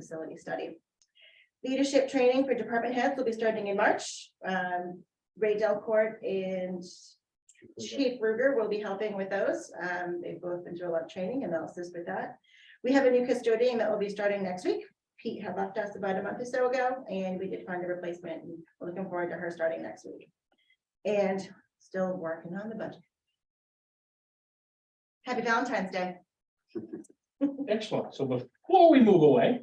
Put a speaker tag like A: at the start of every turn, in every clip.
A: facility study. Leadership training for department heads will be starting in March. Um, Ray Delcourt and Chief Ruger will be helping with those. Um, they've both been through a lot of training and they'll assist with that. We have a new custodian that will be starting next week. Pete had left us about a month or so ago and we did find a replacement and we're looking forward to her starting next week. And still working on the budget. Happy Valentine's Day.
B: Excellent. So before we move away,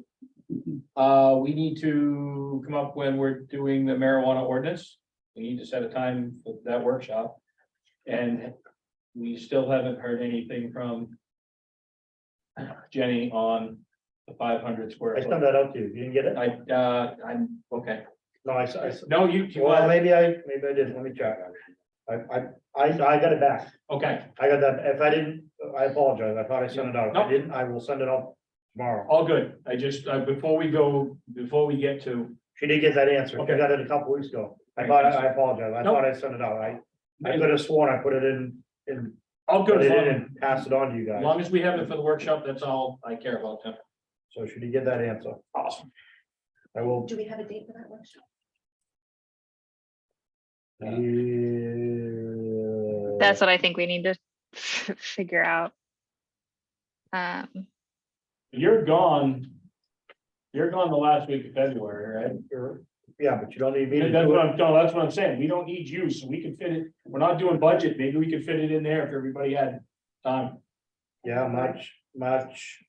B: uh, we need to come up when we're doing the marijuana ordinance. We need to set a time for that workshop. And we still haven't heard anything from Jenny on the five hundred square.
C: I
B: foot.
C: sent that out to you. You didn't get it?
B: I, uh, I'm, okay.
C: No, I, s- I s-
B: No, you, you,
C: well,
B: are-
C: maybe I, maybe I did. Let me check. I, I, I, I got it back.
B: okay,
C: I got that. If I didn't, I apologize. I thought I sent it out. If I
B: Nope.
C: didn't, I will send it out tomorrow.
B: all good. I just, uh, before we go, before we get to.
C: She did get that answer. She
B: Okay.
C: got it a couple weeks ago. I thought, I apologize. I
B: Nope.
C: thought I sent it out. I, I could have sworn I put it in, in,
B: All
C: put
B: good,
C: it
B: as
C: in
B: long,
C: and passed it on to you
B: as
C: guys.
B: long as we have it for the workshop, that's all I care about. Tim.
C: So she did get that answer.
B: Awesome.
C: I will.
A: Do we have a date for that workshop?
C: That's.
D: That's what I think we need to figure out. Um,
B: You're gone. You're gone the last week of February, right?
C: er, Yeah, but you don't need me to
B: That- That's
C: do
B: what
C: it.
B: I'm, no, that's what I'm saying. We don't need you, so we can fit it. We're not doing budget. Maybe we could fit it in there if everybody had time.
C: Yeah, March, March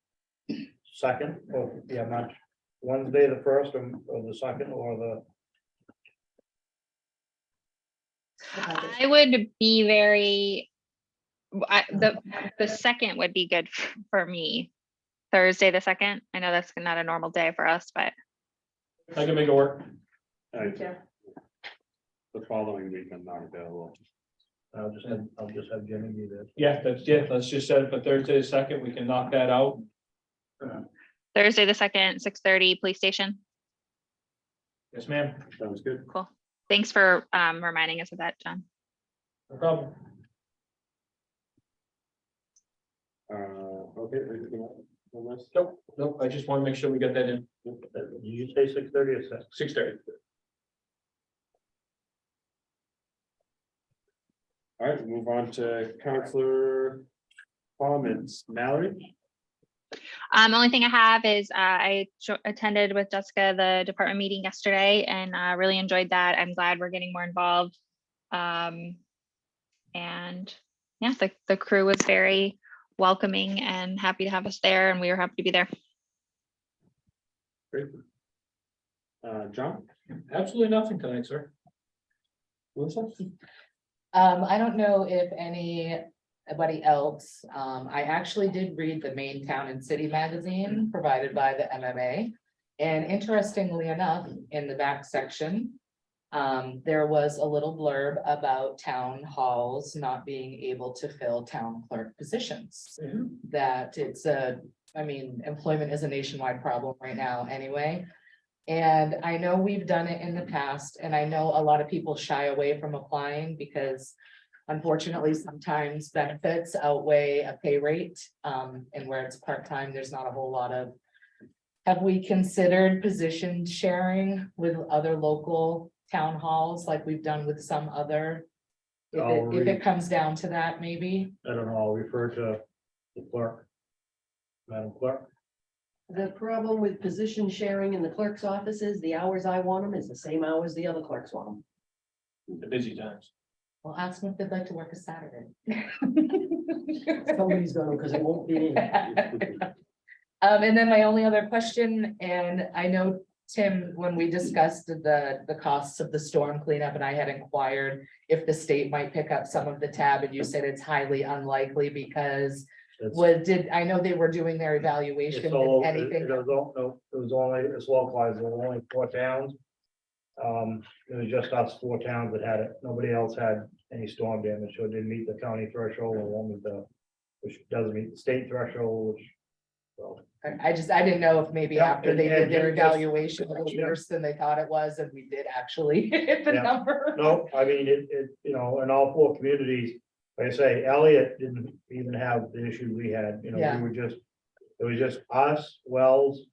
C: second, or, yeah, March, Wednesday, the first, or or the second, or the,
D: I would be very, I, the, the second would be good f- for me. Thursday, the second. I know that's not a normal day for us, but
B: I can make it work.
A: Yeah.
E: The following week, I'm not available.
C: I'll just have, I'll just have Jenny do this.
B: Yeah, that's, yeah, let's just set it for Thursday the second. We can knock that out.
D: Thursday, the second, six thirty, police station.
B: Yes, ma'am.
E: Sounds good.
D: Cool. Thanks for, um, reminding us of that, John.
B: No problem.
E: Uh, okay. anything else on this?
B: Nope, nope. I just want to make sure we get that in
C: Did you say six thirty or six?
B: six thirty.
E: All right, move on to counselor comments. Mallory?
D: Um, only thing I have is, uh, I jo- attended with Jessica the department meeting yesterday and, uh, really enjoyed that. I'm glad we're getting more involved. Um, and yeah, the, the crew was very welcoming and happy to have us there and we were happy to be there.
E: Great. Uh, John?
B: Absolutely nothing tonight, sir.
E: Melissa?
F: Um, I don't know if anybody else, um, I actually did read the Main Town and City magazine provided by the MMA. And interestingly enough, in the back section, um, there was a little blurb about town halls not being able to fill town clerk positions. That it's a, I mean, employment is a nationwide problem right now anyway. And I know we've done it in the past, and I know a lot of people shy away from applying because unfortunately, sometimes benefits outweigh a pay rate. Um, and where it's part-time, there's not a whole lot of. Have we considered position sharing with other local town halls like we've done with some other? If
C: I'll
F: it,
C: read.
F: if it comes down to that, maybe
C: I don't know, I'll refer to the clerk. Madam Clerk,
G: The problem with position sharing in the clerk's office is the hours I want them is the same hours the other clerks want them.
B: The busy times.
F: we'll ask them if they'd like to work a Saturday.
G: Somebody's gonna, because it won't be me.
F: Um, and then my only other question, and I know, Tim, when we discussed the, the costs of the storm cleanup, and I had inquired if the state might pick up some of the tab, and you said it's highly unlikely because
C: it's,
F: what did, I know they were doing their
C: it's
F: evaluation,
C: all,
F: if
C: it
F: anything.
C: it was all, no, it was only, it's localized, there were only four towns. Um, it was just us four towns that had it, nobody else had any storm damage, so it didn't meet the county threshold, or one with the, which doesn't meet the state threshold, which. Well,
F: I- I just, I didn't know if maybe
C: Yeah,
F: after they
C: and- and
F: did their
C: just-
F: evaluation, it was worse than they thought it was, and we did actually hit the
C: Yeah.
F: number.
C: No, I mean, it, it, you know, in all four communities, like I say, Elliott didn't even have the issue we had, you know,
F: Yeah.
C: we were just. It was just us, Wells,